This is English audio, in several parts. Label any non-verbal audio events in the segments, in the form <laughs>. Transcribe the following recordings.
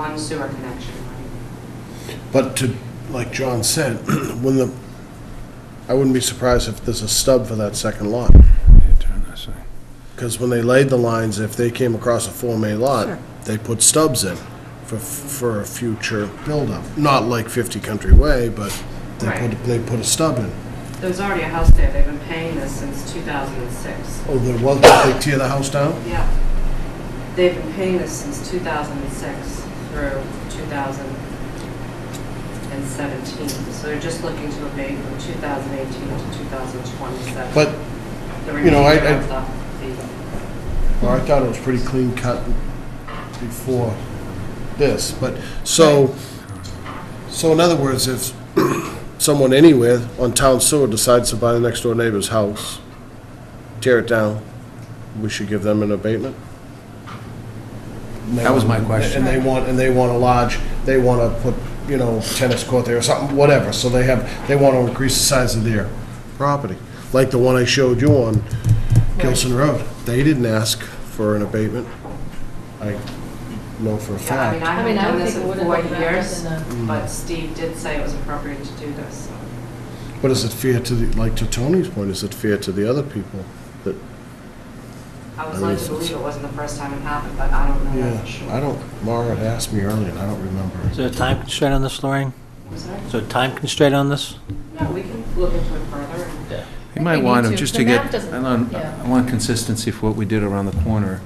one sewer connection, right? But to, like John said, <clears throat> when the, I wouldn't be surprised if there's a stub for that second lot. Because when they laid the lines, if they came across a Form A lot, they put stubs in for, for a future buildup. Not like 50 Country Way, but they put, Right. they put a stub in. There's already a house there, they've been paying this since 2006. Oh, there was, did they tear the house down? Yeah. They've been paying this since 2006 through 2017. So they're just looking to abate from 2018 to 2027. But, The you know, I- remainder I- of the- well, I thought it was pretty clean cut before this, but, so, so in other words, if <clears throat> someone anywhere on town sewer decides to buy the next door neighbor's house, tear it down, we should give them an abatement? And they That was my want- question. And they want, and they want a lodge, they want to put, you know, tennis court there or something, whatever, so they have, they want to increase the size of their property. Like the one I showed you on Gilson Road, they didn't ask for an abatement. I know for a the- Yeah, I mean, I fact. I mean, haven't I done would this in think it would've four been wrapped years, up but Steve did say it was appropriate to do this, so. But is it fair to, the like to Tony's point, is it fair to the other people that, I was I led guess to it's- believe it wasn't the first time it happened, but I don't know that for sure. yeah, I don't, Mara had asked me earlier, and I don't remember. Is there a time constraint on this, Lorraine? I'm sorry? Is there a time constraint on this? No, we can look into it further and You I might think we want need to, to. just The to map get, doesn't- I want, yeah. I want consistency for what we did around the corner,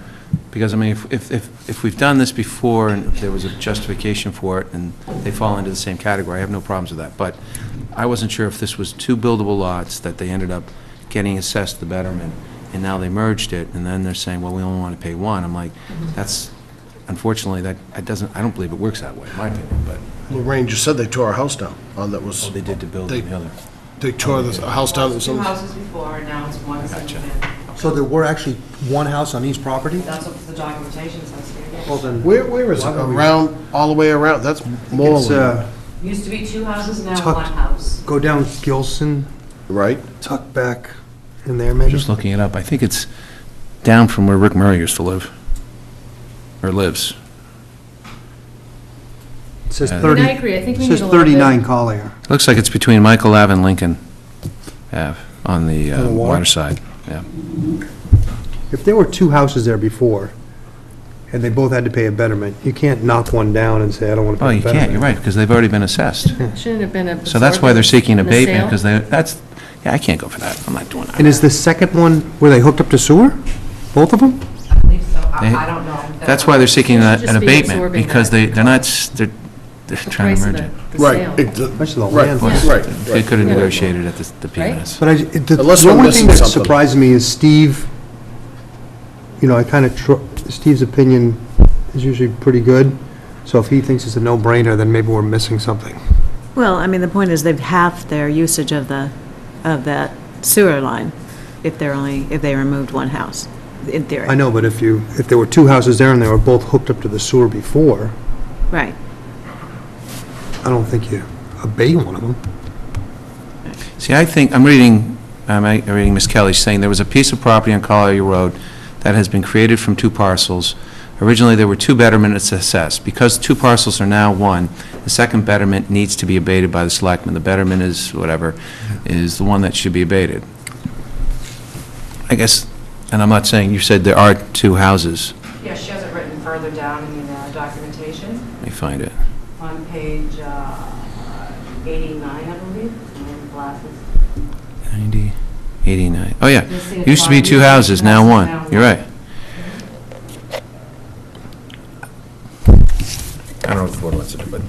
because, I mean, if, if, if if we've done this before, and if there was a justification for it, and they fall into the same category, I have no problems with that, but I wasn't sure if this was two buildable lots that they ended up getting assessed the betterment, and now they merged it, and then they're saying, well, we only want to pay one, I'm like, Mm-hmm. that's, unfortunately, that, that doesn't, I don't believe it works that way, in my opinion, but Lorraine, you said they tore a house down, on that was, Oh, they did to build They- on the other. they tore this house down that was Two on houses before, and now it's one single Gotcha. family. So there were actually one house on each property? That's what the documentation says Well, here. then- Where, where is it? Why would we- Around, all the way around? That's It's, Moreland, uh, Used to be two houses, now Tucked. one house. go down Gilson, right? tuck back in there maybe? Just looking it up, I think it's down from where Rick Murray used to live, or lives. It says Yeah. I mean, I 30, agree, I think it we need says a little bit. 39 Collier. Looks like it's between Michael Ave and Lincoln Ave on the On uh, the water? water side, yeah. If there were two houses there before, and they both had to pay a betterment, you can't knock one down and say, I don't want to Oh, pay a you betterment. can't, you're right, because they've already been <laughs> assessed. Shouldn't have been a. So that's why they're seeking absorbed in the abatement, sale. because they, that's, yeah, I can't go for that, I'm not doing And that. is the second one, were they hooked up to sewer? Both of them? I believe so. I They- I don't know. That's why they're seeking They should a- just an be abatement, absorbing because that they, they're not, s- they're, they're The trying to price of merge it. the- the sale. Right. it- the- Much of the Right, land. right, They right. could have Yeah. negotiated at the- the Right? PMS. But I, it- the Unless the we're only missing thing that something. surprised me is Steve, you know, I kind of, Steve's opinion is usually pretty good, so if he thinks it's a no-brainer, then maybe we're missing something. Well, I mean, the point is they've halved their usage of the, of that sewer line if they're only, if they removed one house, in theory. I know, but if you, if there were two houses there and they were both hooked up to the sewer before, Right. I don't think you obey one of them. See, I think, I'm reading, I'm uh, reading Ms. Kelly saying there was a piece of property on Collier Road that has been created from two parcels. Originally, there were two betterments assessed. Because two parcels are now one, the second betterment needs to be abated by the selectmen. The betterment is whatever, is the one that should be abated. I guess, and I'm not saying, you said there are two houses. Yeah, she has it written further down in the uh, documentation Let me find it. on page uh, 89, I believe. My glasses. 90, 89. Oh, yeah. You'll see it Used to be far- two houses, now one. You're right. I don't know what the board wants to do, but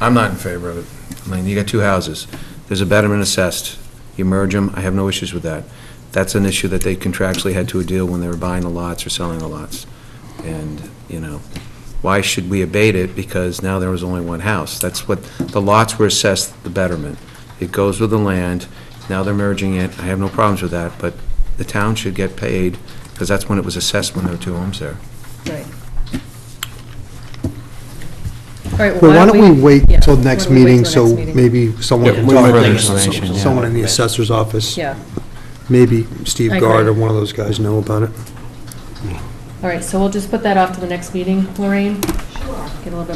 I'm not in favor of it. I mean, you got two houses. There's a betterment assessed. You merge them, I have no issues with that. That's an issue that they contractually had to deal when they were buying the lots or selling the lots. And, you know, why should we abate it? Because now there was only one house. That's what, the lots were assessed the betterment. It goes with the land. Now they're merging it. I have no problems with that, but the town should get paid, because that's when it was assessed when there were two homes there. Right. All right, Well, why don't we wait yeah, till why next don't we wait meeting, till so next meeting? maybe someone Yeah, can we talk further to information, some- yeah. someone in the assessor's office. Yeah, Maybe Steve I Gard or agree. one of those guys know about it. all right, so we'll just put that off to the next meeting, Lorraine? Sure. Get a little bit